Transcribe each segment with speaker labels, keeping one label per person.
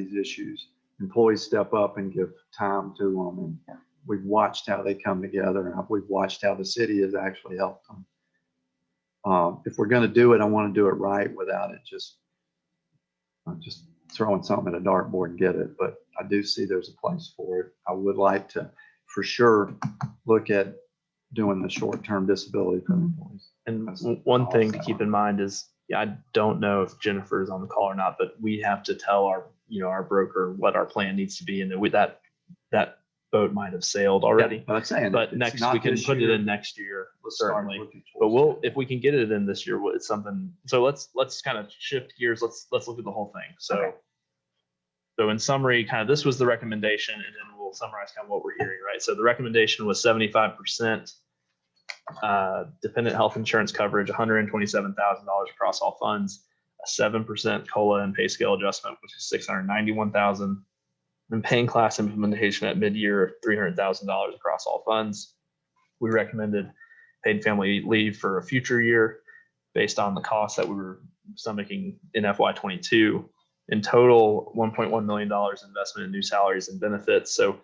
Speaker 1: these issues. Employees step up and give time to them. And we've watched how they come together and we've watched how the city has actually helped them. Um, if we're going to do it, I want to do it right without it just, I'm just throwing something at a dartboard and get it. But I do see there's a place for it. I would like to, for sure, look at doing the short-term disability for
Speaker 2: Mm-hmm.
Speaker 1: employees.
Speaker 2: And
Speaker 1: That's
Speaker 2: w- one thing to
Speaker 1: awesome.
Speaker 2: keep in mind is, yeah, I don't know if Jennifer is on the call or not, but we have to tell our, you know, our broker what our plan needs to be and that we, that, that boat might have sailed already.
Speaker 1: But I'm saying.
Speaker 2: But
Speaker 1: it's
Speaker 2: next,
Speaker 1: not
Speaker 2: we can
Speaker 1: this
Speaker 2: put it
Speaker 1: year.
Speaker 2: in next year,
Speaker 1: Let's start
Speaker 2: certainly.
Speaker 1: looking
Speaker 2: But
Speaker 1: towards
Speaker 2: we'll,
Speaker 1: that.
Speaker 2: if we can get it in this year, well, it's something, so let's, let's kind of shift gears. Let's, let's look at the whole thing. So. So in summary, kind of this was the recommendation and then we'll summarize kind of what we're hearing, right? So the recommendation was seventy-five percent. Uh, dependent health insurance coverage, hundred and twenty-seven thousand dollars across all funds, a seven percent COLA and pay scale adjustment, which is six hundred ninety-one thousand. And paying class implementation at mid-year of three hundred thousand dollars across all funds. We recommended paid family leave for a future year based on the costs that we were stomaching in FY twenty-two. In total, one point one million dollars investment in new salaries and benefits. So,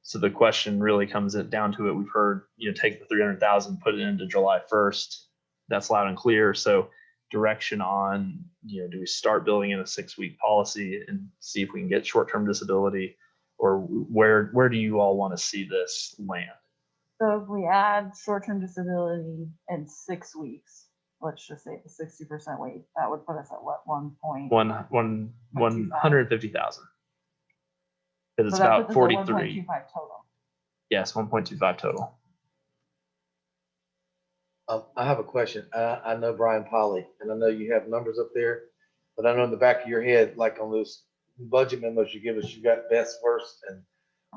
Speaker 2: so the question really comes it- down to it. We've heard, you know, take the three hundred thousand, put it into July first. That's loud and clear. So direction on, you know, do we start building in a six-week policy and see if we can get short-term disability? Or where, where do you all want to see this land?
Speaker 3: So if we add short-term disability in six weeks, let's just say the sixty percent weight, that would put us at what, one point?
Speaker 2: one one one hundred fifty thousand. Because it's about forty-three,
Speaker 3: Five total.
Speaker 2: yes, one point two five total.
Speaker 4: Um, I have a question. Uh, I know Brian Polly, and I know you have numbers up there, but I know in the back of your head, like on those budget memos you give us, you got best, worst, and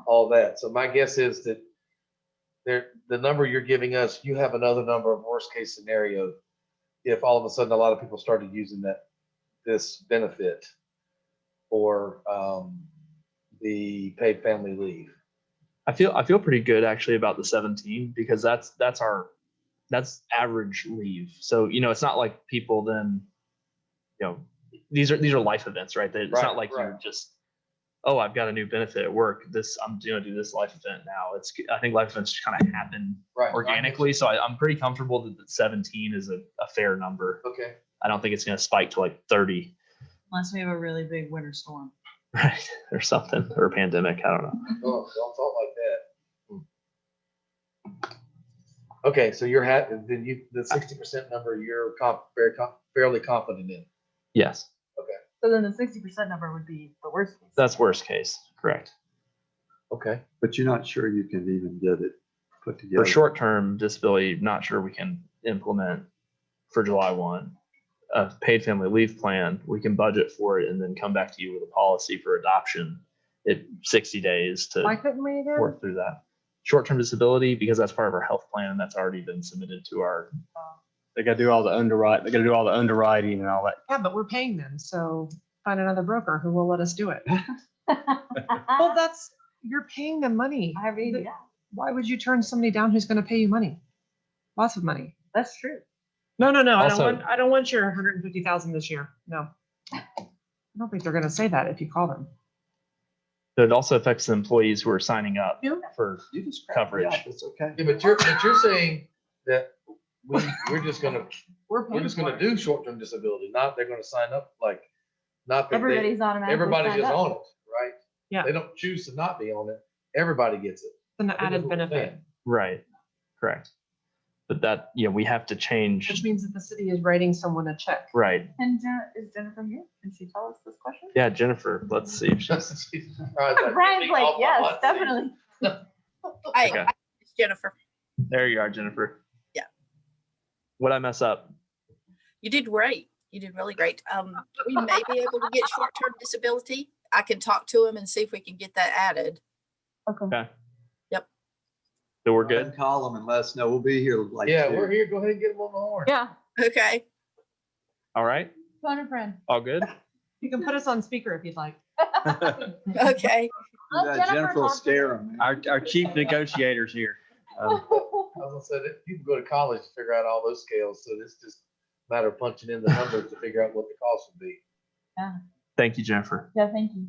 Speaker 4: all that. So my guess is that there, the number you're giving us, you have another number of worst case scenario. If all of a sudden a lot of people started using that, this benefit or, um, the paid family leave.
Speaker 2: I feel I feel pretty good actually about the seventeen because that's that's our that's average leave. So you know it's not like people then, you know, these are these are life events, right? That It's
Speaker 4: Right,
Speaker 2: not like you're
Speaker 4: right.
Speaker 2: just, oh, I've got a new benefit at work. This I'm gonna do this life event now. It's I think life events kind of happen
Speaker 4: Right.
Speaker 2: organically. So I, I'm pretty comfortable that the seventeen is a, a fair number.
Speaker 4: Okay.
Speaker 2: I don't think it's going to spike to like 30
Speaker 3: Unless we have a really big winter storm.
Speaker 2: right? or something or a pandemic. I don't know.
Speaker 4: Oh, don't talk like that. Hmm. Okay, so you're ha, then you, the sixty percent number, you're comp, very com, fairly confident in.
Speaker 2: Yes,
Speaker 3: So then the sixty percent number would be the worst. case.
Speaker 2: that's worst case. Correct.
Speaker 4: Okay.
Speaker 1: But you're not sure you can even get it put together.
Speaker 2: For short term disability, not sure we can implement for July 1. A paid family leave plan, we can budget for it and then come back to you with a policy for adoption. It 60 days to
Speaker 3: Why couldn't we do?
Speaker 2: work through that. Short term disability, because that's part of our health plan and that's already been submitted to our
Speaker 5: They gotta do all the underwrite, they gotta do all the underwriting and all that.
Speaker 6: Yeah, but we're paying them, so find another broker who will let us do it. Well,
Speaker 3: I
Speaker 6: that's, you're paying them money.
Speaker 3: mean, yeah,
Speaker 6: Why would you turn somebody down who's gonna pay you money? Lots of money.
Speaker 3: that's true.
Speaker 6: No, no, no, I don't
Speaker 2: Also-
Speaker 6: want, I don't want your hundred and fifty thousand this year, no. I don't think they're gonna say that if you call them.
Speaker 2: So it also affects the employees who are signing up
Speaker 6: Yeah.
Speaker 2: for
Speaker 1: You just crap me
Speaker 2: coverage.
Speaker 1: out, It's okay.
Speaker 4: Yeah, but you're, but you're saying that we, we're just gonna,
Speaker 3: We're
Speaker 4: we're
Speaker 3: paying
Speaker 4: just
Speaker 3: for
Speaker 4: gonna
Speaker 3: it.
Speaker 4: do short-term disability, not they're gonna sign up like, not that they,
Speaker 3: Everybody's automatically.
Speaker 4: everybody's
Speaker 3: signed
Speaker 4: just
Speaker 3: up.
Speaker 4: on it, right?
Speaker 6: Yeah.
Speaker 4: They don't choose to not be on it. Everybody gets it.
Speaker 6: Then the
Speaker 4: I think that's
Speaker 6: added
Speaker 4: what we're
Speaker 6: benefit,
Speaker 4: saying.
Speaker 2: Right, correct. But that, yeah, we have to
Speaker 6: which
Speaker 2: change,
Speaker 6: means that the city is writing someone a check.
Speaker 2: right?
Speaker 3: And Jen- is Jennifer here? Can she tell us this question?
Speaker 2: Yeah, Jennifer, let's see. if she's-
Speaker 4: I was like,
Speaker 3: Brian's
Speaker 4: take
Speaker 3: like,
Speaker 4: off my
Speaker 3: yes,
Speaker 4: hot seat."
Speaker 3: definitely.
Speaker 7: I,
Speaker 2: Okay.
Speaker 7: I- it's Jennifer,
Speaker 2: There you are, Jennifer.
Speaker 7: Yeah.
Speaker 2: What'd I mess up?
Speaker 7: you did great. You did really great. Um, we may be able to get short-term disability. I can talk to him and see if we can get that added.
Speaker 3: Okay.
Speaker 2: So we're good?
Speaker 1: Call them and let us know. We'll be here like.
Speaker 4: Yeah,
Speaker 1: two.
Speaker 4: we're here. Go ahead and get them on the horn.
Speaker 3: Yeah,
Speaker 7: Okay.
Speaker 2: All right,
Speaker 3: phone a friend.
Speaker 2: all good?
Speaker 6: You can put us on speaker if you'd like.
Speaker 7: Okay.
Speaker 3: Let
Speaker 1: Yeah,
Speaker 3: Jennifer
Speaker 1: Jennifer will
Speaker 3: talk to
Speaker 1: scare them.
Speaker 5: Our, our chief negotiator's here. Um,
Speaker 4: I was gonna say that people go to college to figure out all those scales, so it's just a matter of punching in the numbers to figure out what the cost would be.
Speaker 2: Thank you, Jennifer.
Speaker 3: Yeah, thank you.